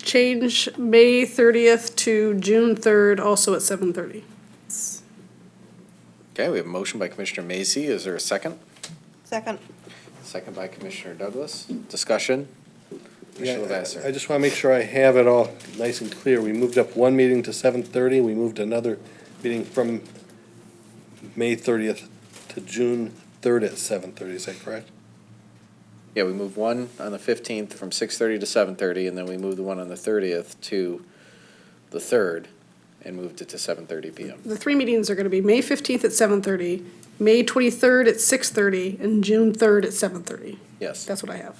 change May thirtieth to June third, also at seven thirty. Okay, we have a motion by Commissioner Macy. Is there a second? Second. Second by Commissioner Douglas. Discussion? Yeah, Commissioner I I Lavasser. just want to make sure I have it all nice and clear. We moved up one meeting to seven thirty, we moved another meeting from May thirtieth to June third at seven thirty, is that correct? Yeah, we move one on the fifteenth from six thirty to seven thirty, and then we move the one on the thirtieth to the third and moved it to seven thirty PM. The three meetings are gonna be May fifteenth at seven thirty, May twenty-third at six thirty, and June third at seven thirty. Yes. That's what I have.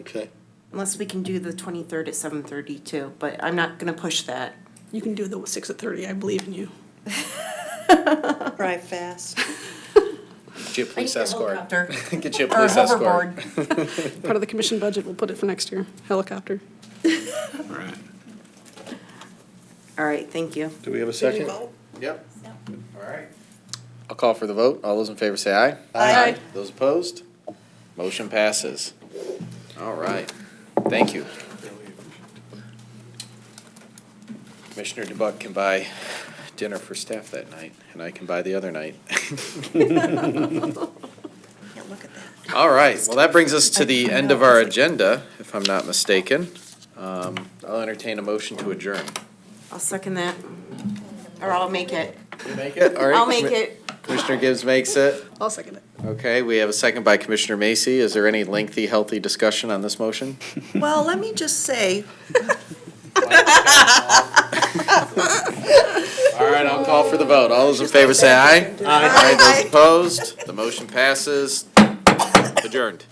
Okay. Unless we can do the twenty-third at seven thirty too, but I'm not gonna push that. You can do the six at thirty, I believe in you. Drive fast. Get you a police escort. Helicopter. Get you a Or police escort. hoverboard. Part of the commission budget, we'll put it for next year, helicopter. All right, thank you. Do we have a second? Yep. All right. I'll call for the vote. All those in favor say aye. Aye. Aye. Those opposed? Motion passes. All right. Thank you. Commissioner DeBuck can buy dinner for staff that night, and I can buy the other night. Yeah, look at that. All right, well, that brings us to the end of our agenda, if I'm not mistaken. Um, I'll entertain a motion to adjourn. I'll second that. Or I'll make it. Make it? All right, I'll make Commi- it. Commissioner Gibbs makes it. I'll second it. Okay, we have a second by Commissioner Macy. Is there any lengthy, healthy discussion on this motion? Well, let me just say, All right, I'll call for the vote. All those in favor say aye. Aye. Those opposed, the motion passes. Adjourned.